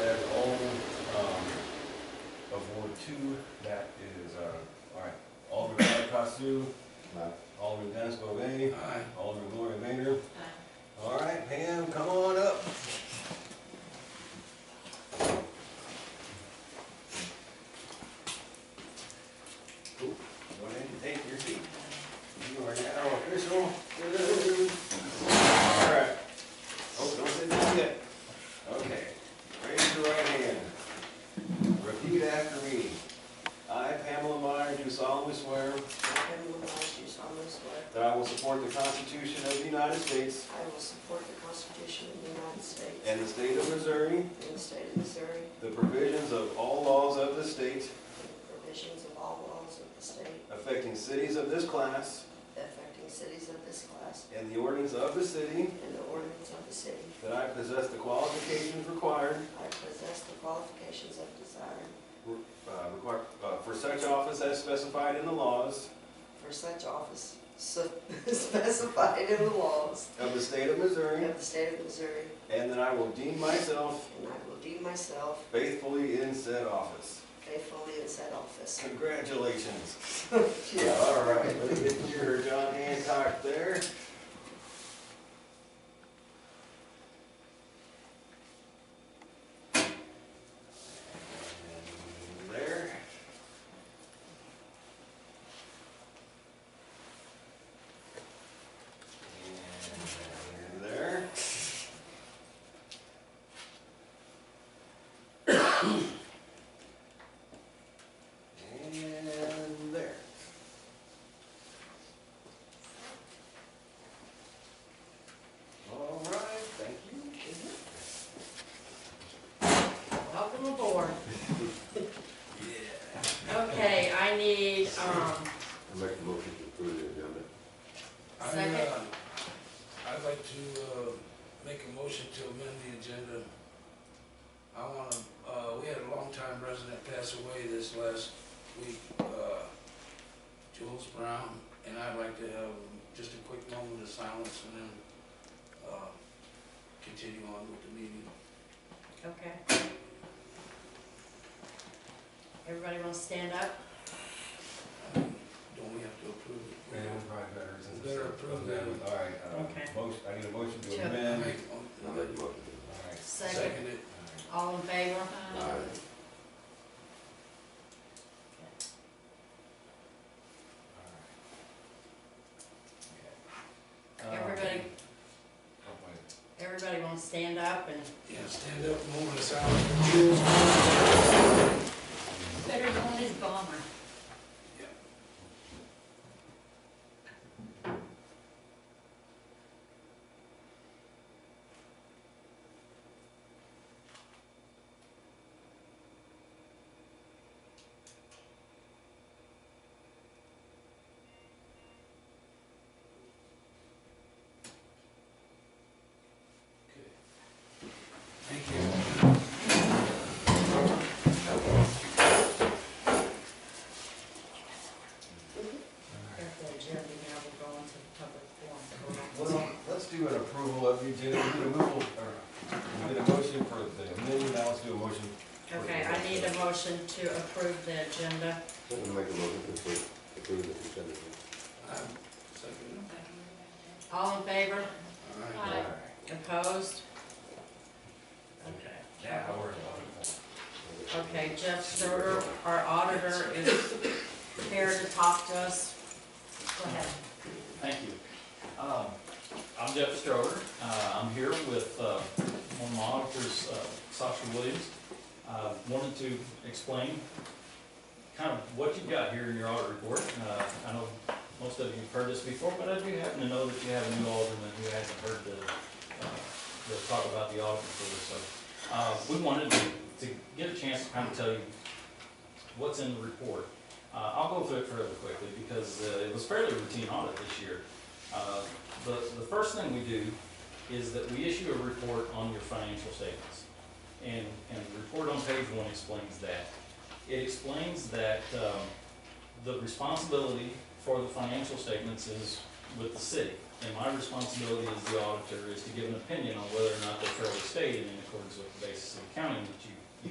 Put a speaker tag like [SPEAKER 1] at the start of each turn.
[SPEAKER 1] um, uh, Sue. Alderman Dennis Bovee. Alderman Gloria Vader. All right, Pam, come on up. Cool. Go ahead and take your seat. You are now official. All right. Oh, don't sit down yet. Okay. Raise your right hand. Repeat after me. I, Pamela Meyer, do solemnly swear
[SPEAKER 2] I will oblige you solemnly swear
[SPEAKER 1] that I will support the Constitution of the United States
[SPEAKER 2] I will support the Constitution of the United States
[SPEAKER 1] and the state of Missouri,
[SPEAKER 2] and the state of Missouri,
[SPEAKER 1] the provisions of all laws of the state
[SPEAKER 2] and the provisions of all laws of the state
[SPEAKER 1] affecting cities of this class
[SPEAKER 2] affecting cities of this class
[SPEAKER 1] and the ordinance of the city,
[SPEAKER 2] and the ordinance of the city.
[SPEAKER 1] that I possess the qualifications required
[SPEAKER 2] I possess the qualifications of desire
[SPEAKER 1] uh, require- uh, for such office as specified in the laws
[SPEAKER 2] for such office so- specified in the laws
[SPEAKER 1] of the state of Missouri,
[SPEAKER 2] of the state of Missouri,
[SPEAKER 1] and that I will deem myself
[SPEAKER 2] and I will deem myself
[SPEAKER 1] faithfully in said office.
[SPEAKER 2] faithfully in said office.
[SPEAKER 1] Congratulations. Yeah, all right, let's get your John Hancock there. And There. And there. And there. All right, thank you.
[SPEAKER 3] Welcome aboard.
[SPEAKER 1] Yeah.
[SPEAKER 3] Okay, I need, um,
[SPEAKER 4] I make a motion to approve the agenda.
[SPEAKER 5] I,
[SPEAKER 3] Second.
[SPEAKER 5] uh, I'd like to uh, make a motion to amend the agenda. I want to, we had a longtime resident pass away this last week, uh, Jules Brown, and I'd like to have just a quick moment of silence and then uh, continue on with the meeting.
[SPEAKER 3] okay. Everybody want to stand up?
[SPEAKER 5] Don't we have to approve it?
[SPEAKER 1] Yeah, probably better since it's.
[SPEAKER 5] Better approve that.
[SPEAKER 1] All right,
[SPEAKER 3] Okay.
[SPEAKER 1] uh, motion, I need a motion to
[SPEAKER 3] Sure.
[SPEAKER 5] I
[SPEAKER 1] amend.
[SPEAKER 5] make- um,
[SPEAKER 4] I make a motion. to-
[SPEAKER 1] All right.
[SPEAKER 3] Second,
[SPEAKER 5] it.
[SPEAKER 3] all in favor?
[SPEAKER 4] Aye.
[SPEAKER 1] All right.
[SPEAKER 3] Everybody,
[SPEAKER 1] Oh, wait.
[SPEAKER 3] everybody want to stand up and
[SPEAKER 5] Yeah, stand up, moment of silence for Jules Brown.
[SPEAKER 3] Better go on his bomber.
[SPEAKER 5] Okay. Thank you.
[SPEAKER 3] If the agenda, now we're going to the public forum.
[SPEAKER 1] Well, let's do an approval of the agenda, we did a move, or, we did a motion for the amendment, now let's do a motion. for the-
[SPEAKER 3] Okay, I need a motion to approve the agenda.
[SPEAKER 4] I make a motion to approve- approve the consent agenda.
[SPEAKER 5] Um, second.
[SPEAKER 3] All in favor?
[SPEAKER 5] All
[SPEAKER 1] All
[SPEAKER 5] right.
[SPEAKER 1] right.
[SPEAKER 3] Opposed? Okay.
[SPEAKER 1] Now, we're in.
[SPEAKER 3] Okay, Jeff Sturter, our auditor, is here to talk to us. Go ahead.
[SPEAKER 6] Thank you. Um, I'm Jeff Stroder. Uh, I'm here with uh, one of my auditors, uh, Sasha Williams. Uh, Wanted to explain kind of what you've got here in your audit report. Uh, I know most of you have heard this before, but I do happen to know that you have a new alderman who hasn't heard the, uh, the talk about the audit report. So uh, we wanted to to get a chance to kind of tell you what's in the report. Uh, I'll go through it fairly quickly because uh, it was fairly routine audit this year. Uh, The, the first thing we do is that we issue a report on your financial statements. And, and the report on page one explains that. It explains that um, the responsibility for the financial statements is with the city. And my responsibility as the auditor is to give an opinion on whether or not they're fairly stated in accordance with the basis of accounting that you, you